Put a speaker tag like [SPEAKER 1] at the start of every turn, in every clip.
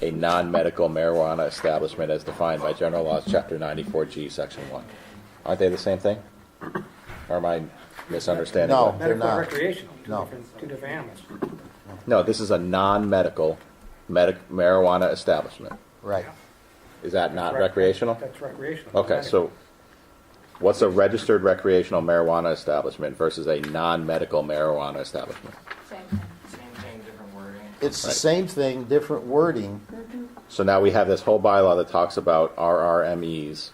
[SPEAKER 1] a non-medical marijuana establishment as defined by general laws, chapter 94G, section 1. Aren't they the same thing? Or am I misunderstanding?
[SPEAKER 2] No.
[SPEAKER 1] that?
[SPEAKER 2] They're
[SPEAKER 3] Medical
[SPEAKER 2] not.
[SPEAKER 3] recreational, two
[SPEAKER 2] No.
[SPEAKER 3] different, two different animals.
[SPEAKER 1] No, this is a non-medical medic, marijuana establishment.
[SPEAKER 2] Right.
[SPEAKER 1] Is that not
[SPEAKER 3] Rec-
[SPEAKER 1] recreational?
[SPEAKER 3] That's recreational.
[SPEAKER 1] Okay, so what's a registered recreational marijuana establishment versus a non-medical marijuana establishment?
[SPEAKER 4] Same thing.
[SPEAKER 5] Same thing, different wording.
[SPEAKER 2] It's the
[SPEAKER 1] Right.
[SPEAKER 2] same thing, different wording.
[SPEAKER 1] So now we have this whole bylaw that talks about RRMEs,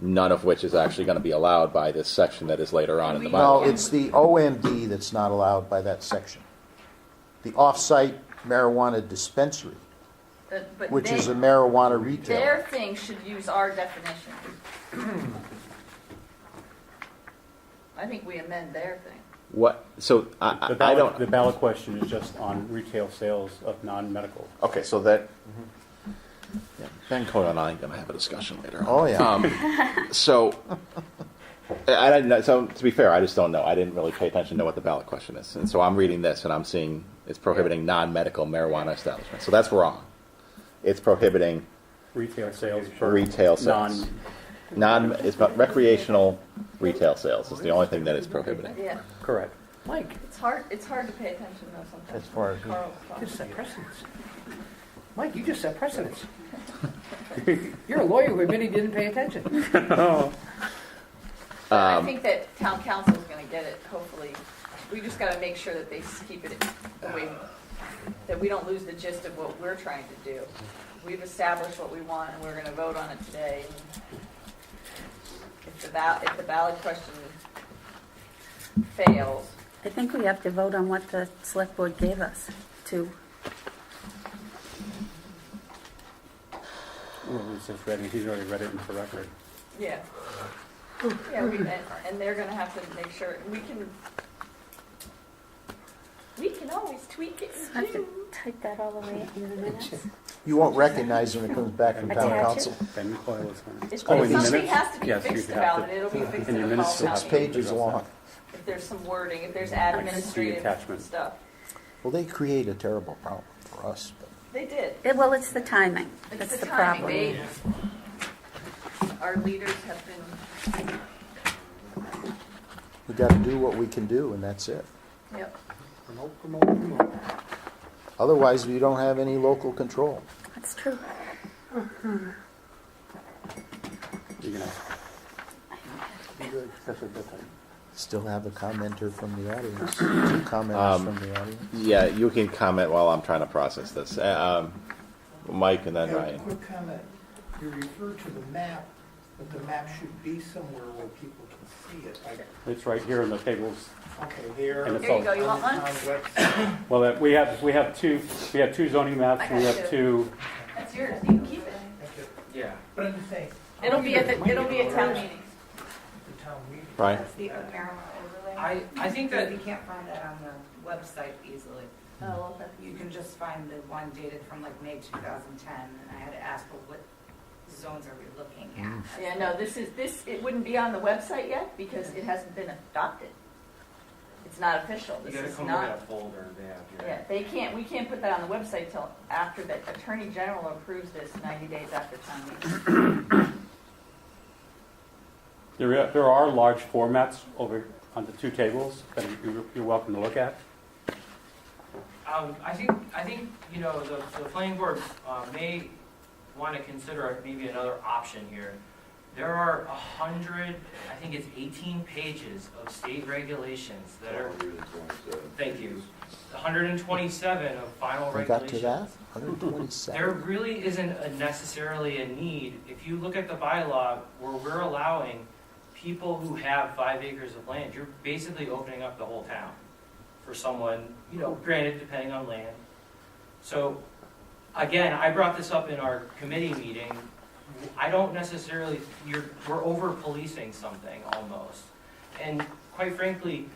[SPEAKER 1] none of which is actually going to be allowed by this section that is later on in the
[SPEAKER 2] No,
[SPEAKER 1] bylaw.
[SPEAKER 2] it's the OMD that's not allowed by that section. The off-site marijuana dispensary,
[SPEAKER 4] Uh, But- but
[SPEAKER 2] which
[SPEAKER 4] they-
[SPEAKER 2] is a marijuana retailer.
[SPEAKER 4] Their thing should use our definition. I think we amend their thing.
[SPEAKER 1] What, so
[SPEAKER 6] The
[SPEAKER 1] I, I I
[SPEAKER 6] ballot, the
[SPEAKER 1] don't,
[SPEAKER 6] ballot question is just on retail sales of non-medical.
[SPEAKER 1] okay, so that, Yeah, Ben Coyle and I are going to have a discussion later on.
[SPEAKER 2] Oh, yeah.
[SPEAKER 1] So, I I don't know. So, to be fair, I just don't know. I didn't really pay attention to what the ballot question is, and so I'm reading this and I'm seeing it's prohibiting non-medical marijuana establishments. So that's wrong. It's prohibiting
[SPEAKER 6] Retail sales for
[SPEAKER 1] retail sales.
[SPEAKER 6] non,
[SPEAKER 1] Non, it's about recreational retail sales. Is the only thing that it's prohibiting.
[SPEAKER 4] Yeah,
[SPEAKER 6] correct. Mike,
[SPEAKER 4] it's hard, it's hard to pay attention though sometimes.
[SPEAKER 2] As far as-
[SPEAKER 4] Carl's talking.
[SPEAKER 3] Just set precedence. Mike, you just set precedence. You're a lawyer who admitted he didn't pay attention.
[SPEAKER 4] But I think that town council's gonna get it, hopefully. We just gotta make sure that they s- keep it the way, that we don't lose the gist of what we're trying to do. We've established what we want and we're gonna vote on it today. If the val, if the ballot question fails,
[SPEAKER 7] I think we have to vote on what the select board gave us to,
[SPEAKER 6] Well, he's just read it. He's already read it into the record.
[SPEAKER 4] yeah. Yeah, we, and, and they're gonna have to make sure, we can, we can always tweak it
[SPEAKER 7] I have
[SPEAKER 4] too.
[SPEAKER 7] to type that all the way in the minutes.
[SPEAKER 2] You won't recognize it when it comes back from town
[SPEAKER 7] Attach it.
[SPEAKER 2] council.
[SPEAKER 6] Ben Coyle is on.
[SPEAKER 4] If
[SPEAKER 6] Oh,
[SPEAKER 4] there's
[SPEAKER 6] in the
[SPEAKER 4] something
[SPEAKER 6] minutes?
[SPEAKER 4] has to be
[SPEAKER 6] Yes, you
[SPEAKER 4] fixed
[SPEAKER 6] have
[SPEAKER 4] about
[SPEAKER 6] to-
[SPEAKER 4] it, it'll be fixed
[SPEAKER 6] in
[SPEAKER 4] in
[SPEAKER 6] your
[SPEAKER 4] the
[SPEAKER 6] minutes,
[SPEAKER 4] fall
[SPEAKER 6] it's
[SPEAKER 2] Six
[SPEAKER 4] town meeting.
[SPEAKER 2] pages long.
[SPEAKER 4] If there's some wording, if there's
[SPEAKER 6] attachment.
[SPEAKER 4] administrative stuff.
[SPEAKER 2] Well, they create a terrible problem for us, but.
[SPEAKER 4] They did.
[SPEAKER 7] It- Well, it's the timing.
[SPEAKER 4] It's
[SPEAKER 7] That's
[SPEAKER 4] the
[SPEAKER 7] the
[SPEAKER 4] timing. eh?
[SPEAKER 7] problem.
[SPEAKER 4] They, our leaders have been,
[SPEAKER 2] We got to do what we can do, and that's it.
[SPEAKER 4] yep.
[SPEAKER 3] Promote, promote, promote.
[SPEAKER 2] Otherwise, we don't have any local control.
[SPEAKER 7] That's true.
[SPEAKER 6] You're gonna. That's a good thing.
[SPEAKER 2] Still have a commenter from the audience, two commenters from the audience.
[SPEAKER 1] Yeah, you can comment while I'm trying to process this. Uh, Um, Mike and then
[SPEAKER 8] Yeah,
[SPEAKER 1] Ryan.
[SPEAKER 8] Quick comment. You refer to the map, but the map should be somewhere where people can see it, like,
[SPEAKER 6] It's right here in the tables.
[SPEAKER 8] okay, there.
[SPEAKER 6] And it's
[SPEAKER 4] Here you go, you
[SPEAKER 8] on
[SPEAKER 4] want
[SPEAKER 8] the
[SPEAKER 4] one?
[SPEAKER 8] town website.
[SPEAKER 6] Well, that- we have, we have two, we have two zoning maps, and we have two,
[SPEAKER 4] That's yours, you can keep it.
[SPEAKER 8] Okay.
[SPEAKER 5] Yeah.
[SPEAKER 8] But I'm just saying.
[SPEAKER 4] It'll be at, the. it'll be at town
[SPEAKER 8] The
[SPEAKER 4] meeting.
[SPEAKER 8] town meeting.
[SPEAKER 1] Ryan.
[SPEAKER 9] That's the O'Carroll overlay.
[SPEAKER 5] I, I think that
[SPEAKER 9] You can't find that on the website easily.
[SPEAKER 4] Oh, okay.
[SPEAKER 9] You can just find the one dated from like May 2010, and I had to ask, well, what zones are we looking at?
[SPEAKER 4] Yeah, no, this is, this, it wouldn't be on the website yet because it hasn't been adopted. It's not official,
[SPEAKER 5] you
[SPEAKER 4] this
[SPEAKER 5] gotta
[SPEAKER 4] is
[SPEAKER 5] come up
[SPEAKER 4] not.
[SPEAKER 5] with that folder they have
[SPEAKER 4] Yeah,
[SPEAKER 5] here.
[SPEAKER 4] they can't, we can't put that on the website till after the Attorney General approves this ninety days after town meeting.
[SPEAKER 6] there are, there are large formats over on the two tables that you- you're welcome to look at.
[SPEAKER 5] Um, I think, I think, you know, the, the planning board, uh, may wanna consider maybe another option here. There are a hundred, I think it's eighteen pages of state regulations that are, thank you, hundred and twenty-seven of final
[SPEAKER 2] We
[SPEAKER 5] regulations.
[SPEAKER 2] got to that? 127.
[SPEAKER 5] There really isn't a necessarily a need. If you look at the bylaw where we're allowing people who have five acres of land, you're basically opening up the whole town for someone, you know, granted depending on land. So, again, I brought this up in our committee meeting. I don't necessarily, you're, we're over policing something almost. And quite frankly,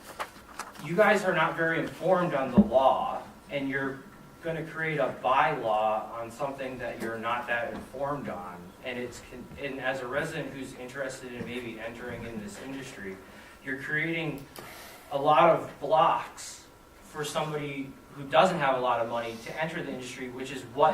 [SPEAKER 5] you guys are not very informed on the law and you're going to create a bylaw on something that you're not that informed on. And it's, con- and as a resident who's interested in maybe entering in this industry, you're creating a lot of blocks for somebody who doesn't have a lot of money to enter the industry, which is what